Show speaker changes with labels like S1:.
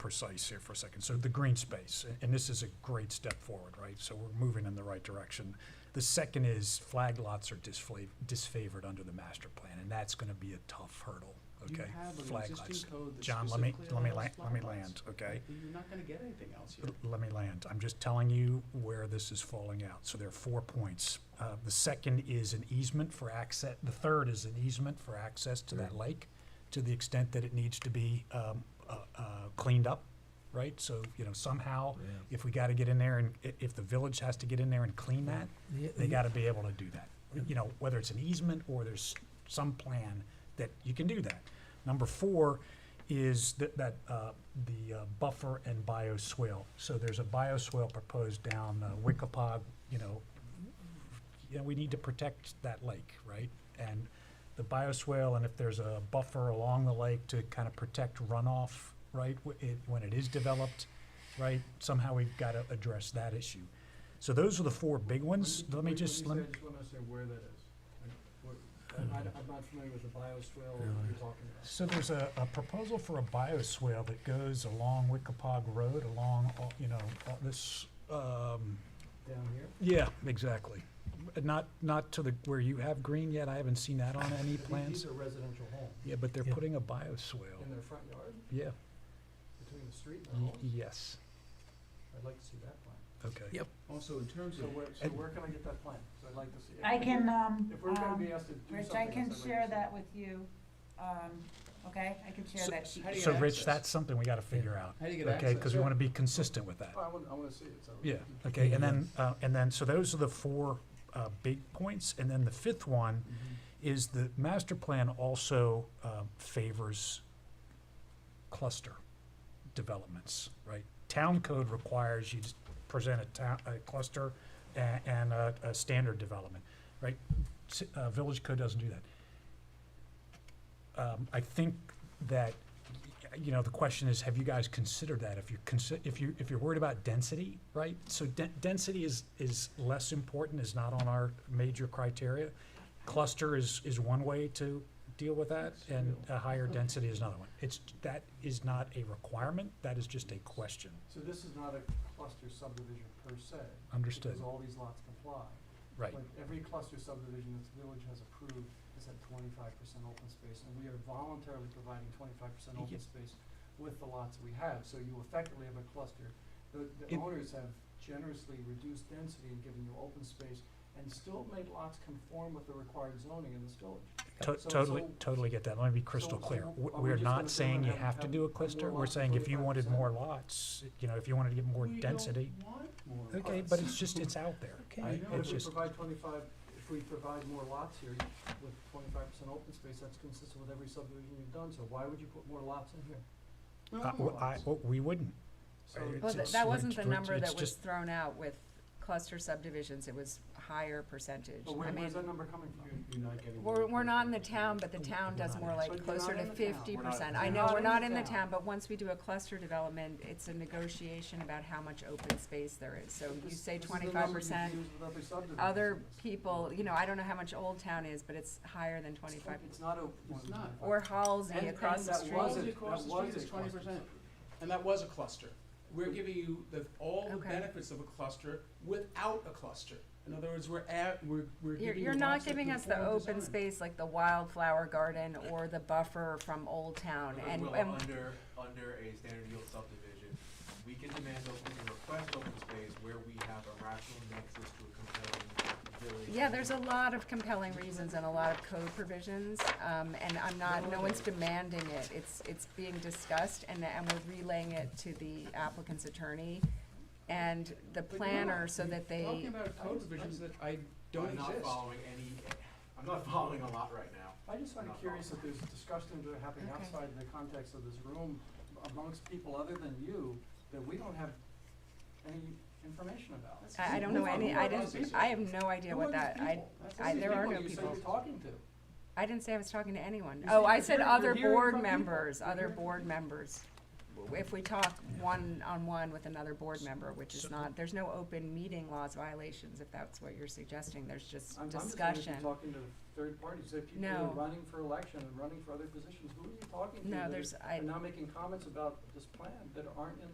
S1: precise here for a second. So the green space, a- and this is a great step forward, right? So we're moving in the right direction. The second is flag lots are disfla- disfavored under the master plan, and that's gonna be a tough hurdle,
S2: You
S1: okay?
S2: have an
S1: Flag
S2: existing
S1: lots.
S2: code that
S1: John, let me,
S2: specifically
S1: let me
S2: allows
S1: land, let me
S2: flag
S1: land,
S2: lots.
S1: okay?
S2: You're not gonna get anything else here.
S1: L- Let me land. I'm just telling you where this is falling out. So there are four points. Uh, the second is an easement for access, the third is an easement for access to that lake to the extent that it needs to be, um, uh, uh, cleaned up, right? So, you know, somehow, if we gotta get in there and, i- if the village has to get in there and clean that, they gotta be able to do that. You know, whether it's an easement or there's some plan that you can do that. Number four is that, that, uh, the uh, buffer and bioswale. So there's a bioswale proposed down uh, Wickapog, you know, you know, we need to protect that lake, right? And the bioswale, and if there's a buffer along the lake to kind of protect runoff, right, wh- it, when it is developed, right, somehow we've got to address that issue. So those are the four big ones. Let me just, let
S2: When
S1: me,
S2: you say, I just wanna understand where that is. Like, what- I, I- I'm not familiar with the bioswale that you're talking about.
S1: So there's a, a proposal for a bioswale that goes along Wickapog Road, along, all- you know, all this, um,
S2: Down here?
S1: yeah, exactly. Not, not to the, where you have green yet, I haven't seen that on any
S2: But the-
S1: plans.
S2: These are residential homes
S1: Yeah, but they're
S3: Yeah.
S1: putting a bioswale,
S2: in their front yard,
S1: yeah,
S2: between the street and the
S1: y-
S2: home.
S1: yes,
S2: I'd like to see that plan.
S1: okay.
S3: Yep.
S2: Also, in terms of where, so
S1: And-
S2: where can I get that plan? So I'd like to see. it.
S4: I
S2: If
S4: can,
S2: we're-
S4: um,
S2: If we're gonna
S4: um,
S2: be asked to do
S4: Rich,
S2: something.
S4: I
S2: else, I'd
S4: can
S2: like to
S4: share
S2: see
S4: that with you, um, okay, I can share
S1: So-
S4: that sheet.
S2: How do you
S1: So Rich,
S2: access?
S1: that's something we gotta figure out,
S2: How do you get access?
S1: okay, cause we
S2: Yeah.
S1: wanna be consistent with that.
S2: Oh, I wanna, I wanna see it, so.
S1: Yeah, okay, and then,
S2: Mm-hmm.
S1: uh, and then, so those are the four, uh, big points, and then the fifth one
S2: Mhm.
S1: is the master plan also, um, favors cluster developments, right? Town code requires you to present a town, a cluster and, and a, a standard development, right? S- Uh, village code doesn't do that. Um, I think that, y- you know, the question is, have you guys considered that? If you're consi- if you, if you're worried about density, right? So den- density is, is less important, is not on our major criteria. Cluster is, is one way to deal with that, and a higher density is another one. It's, that is not a requirement, that is just a question.
S2: So this is not a cluster subdivision per se.
S1: Understood.
S2: Because all these lots comply.
S1: Right,
S2: Like, every cluster subdivision that the village has approved has had twenty-five percent open space, and we are voluntarily providing twenty-five percent
S1: Yeah.
S2: open space with the lots we have, so you effectively have a cluster. The, the
S1: It-
S2: owners have generously reduced density and given you open space, and still made lots conform with the required zoning in this village.
S1: To-
S2: So-
S1: totally,
S2: so-
S1: totally get that, let me be crystal
S2: so
S1: clear.
S2: are
S1: W-
S2: we
S1: We're
S2: just gonna
S1: not
S2: go
S1: saying
S2: and
S1: you
S2: have-
S1: have to
S2: have
S1: do a
S2: more
S1: cluster, we're
S2: lots,
S1: saying if you wanted
S2: 25%?
S1: more lots, you know, if you wanted to get more
S2: We don't
S1: density.
S2: want more
S1: Okay,
S2: lots.
S1: but it's just, it's out there.
S3: Okay.
S2: I
S1: right?
S2: know,
S1: It's
S2: if we
S1: just,
S2: provide twenty-five, if we provide more lots here with twenty-five percent open space, that's consistent with every subdivision you've done, so why would you put more lots in here? We
S1: uh,
S2: want more
S1: well, I,
S2: lots.
S1: well, we wouldn't. I-
S2: So it's-
S5: Well,
S1: it's-
S5: th- that wasn't the
S1: it's-
S5: number
S1: it's
S5: that was
S1: just-
S5: thrown out with cluster subdivisions, it was higher percentage.
S2: But
S5: I
S2: where,
S5: mean,
S2: where's that number coming from?
S6: You're not getting.
S5: we're, we're not in the town, but the
S1: We're
S5: town does
S1: not
S5: more
S1: in-
S2: But
S5: like
S2: you're
S5: closer
S2: not
S5: to
S2: in the town.
S5: fifty
S6: We're not in
S5: percent.
S6: the
S5: I
S2: town.
S5: know,
S2: Not
S5: we're
S2: in
S5: not
S2: the
S5: in the
S2: town.
S5: town, but once we do a cluster development, it's a negotiation about how much open space there is. So you
S2: This-
S5: say
S2: this is the
S5: twenty-five
S2: number you
S5: percent,
S2: use with every subdivision.
S5: other
S2: It's-
S5: people, you know, I don't know how much Old Town is, but it's higher than twenty-five.
S2: It's not a.
S6: It's not.
S5: Or Halsey
S6: And-
S5: across
S6: and
S5: the
S2: that
S5: street.
S2: was a-
S6: Halsey
S2: that
S6: across the
S2: was
S6: street
S2: a
S6: is 20%.
S2: cluster.
S6: And that was a cluster. We're giving you the, all the
S5: Okay.
S6: benefits of a cluster without a cluster. In other words, we're at, we're, we're
S5: You're,
S6: giving you
S5: you're not
S6: lots that
S5: giving us the
S6: conform
S5: open
S6: design.
S5: space like the wildflower garden or the buffer from Old Town
S7: But
S5: and, um,
S7: Will,
S5: and,
S7: under, under a standard yield subdivision, we can demand open, we can request open space where we have a rational nexus to a compelling village.
S5: yeah, there's a lot of compelling reasons and a lot of code provisions. Um, and I'm not, no one's demanding it. It's, it's being discussed and, and we're relaying it to the applicant's attorney and the
S6: But you're
S5: planner
S6: not.
S5: so
S6: You're
S5: that they. Oh,
S6: Talking about code provisions that I don't
S7: I'm not
S6: exist.
S7: following any, I'm not following a lot right now.
S2: I just find it curious that there's discussions that are happening
S5: Okay.
S2: outside the context of this room amongst people other than you that we don't have any information about.
S5: I, I don't know any, I didn't, I have no idea what that, I, I- there are no
S2: That's the people you say
S5: people.
S2: you're talking to.
S5: I didn't say I was talking to anyone.
S2: You
S5: Oh,
S2: said
S5: I
S2: you're
S5: said
S2: hearing-
S5: other
S2: you're hearing
S5: board
S2: from people.
S5: members,
S2: You're
S5: other
S2: hearing from
S5: board
S2: people.
S5: members.
S2: Well,
S5: if we talk one-on-one with another board member, which
S1: So-
S5: is not, there's no open meeting laws violations, if that's what you're suggesting, there's just
S2: I'm, I'm just wondering if
S5: discussion.
S2: you're talking to third parties, if people are
S5: No.
S2: running for election and running for other positions, who are you talking to?
S5: No,
S2: that
S5: there's,
S2: are-
S5: I,
S2: Are now making comments about this plan that aren't in